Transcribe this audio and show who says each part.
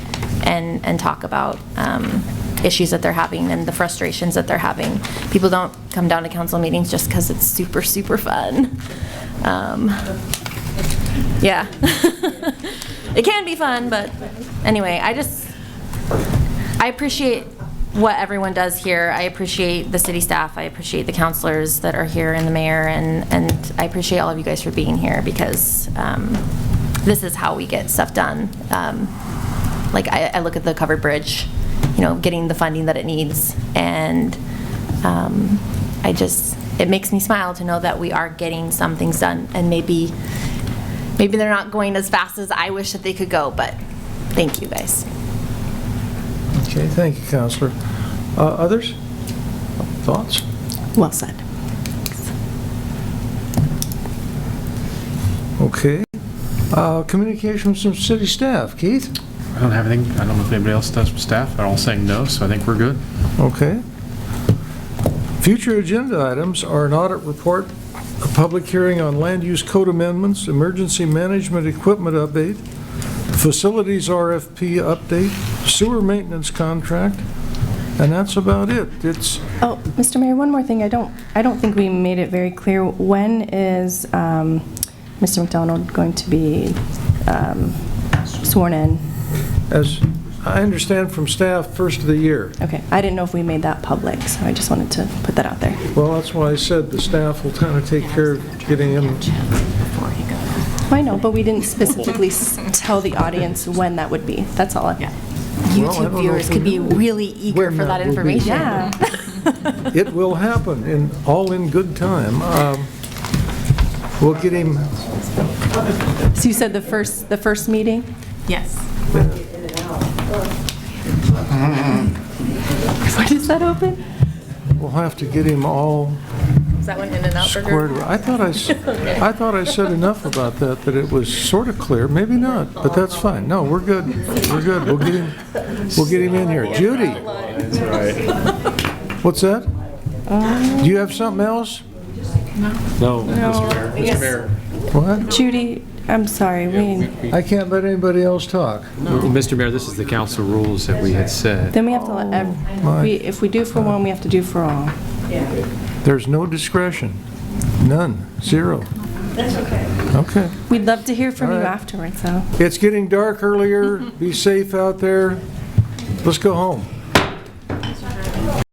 Speaker 1: and, and talk about um, issues that they're having and the frustrations that they're having. People don't come down to council meetings just because it's super, super fun. Um, Yeah. It can be fun, but anyway, I just, I appreciate what everyone does here. I appreciate the city staff. I appreciate the counselors that are here and the mayor, and, and I appreciate all of you guys for being here because um, this is how we get stuff done. Um, Like, I, I look at the covered bridge, you know, getting the funding that it needs, and um, I just, it makes me smile to know that we are getting some things done, and maybe, maybe they're not going as fast as I wish that they could go, but thank you, guys.
Speaker 2: Okay, thank you, Counselor. Uh, Others? Thoughts?
Speaker 3: Well said.
Speaker 2: Okay. Uh, Communications from city staff. Keith?
Speaker 4: I don't have anything, I don't know if anybody else does from staff, they're all saying no, so I think we're good.
Speaker 2: Okay. Future agenda items are an audit report, a public hearing on land use code amendments, emergency management equipment update, facilities RFP update, sewer maintenance contract, and that's about it. It's,
Speaker 3: Oh, Mr. Mayor, one more thing. I don't, I don't think we made it very clear. When is um, Mr. McDonald going to be um, sworn in?
Speaker 2: as I understand from staff, first of the year.
Speaker 3: Okay, I didn't know if we made that public, so I just wanted to put that out there.
Speaker 2: Well, that's why I said the staff will kind of take care of getting him.
Speaker 3: I know, but we didn't specifically s- tell the audience when that would be. That's all. Yeah.
Speaker 2: Well, I don't
Speaker 1: YouTube
Speaker 2: know if
Speaker 1: viewers
Speaker 2: we
Speaker 1: could be
Speaker 2: know
Speaker 1: really eager
Speaker 2: when
Speaker 1: for that
Speaker 2: that will be.
Speaker 1: information.
Speaker 3: Yeah.
Speaker 2: It will happen, and all in good time. Um, We'll get him,
Speaker 3: So you said the first, the first meeting?
Speaker 5: Yes.
Speaker 3: When is that open?
Speaker 2: we'll have to get him all
Speaker 5: Is that one in and out burger?
Speaker 2: squared away. I thought I, s- I thought I said enough about that, that it was sort of clear, maybe not, but that's fine. No, we're good, we're good, we'll get him, we'll get him in here. Judy? What's that?
Speaker 1: Um,
Speaker 2: Do you have something else?
Speaker 3: No. Yes.
Speaker 2: What?
Speaker 3: Judy, I'm sorry, we,
Speaker 2: I can't let anybody else talk.
Speaker 6: Mr. Mayor, this is the council rules that we had said.
Speaker 3: then we have to let, ev- we- if we do for one, we have to do for all.
Speaker 2: There's no discretion. None. Zero. That's okay. Okay.
Speaker 3: We'd love to hear from you
Speaker 2: All right.
Speaker 3: afterwards, though.
Speaker 2: It's getting dark earlier. Be safe out there. Let's go home.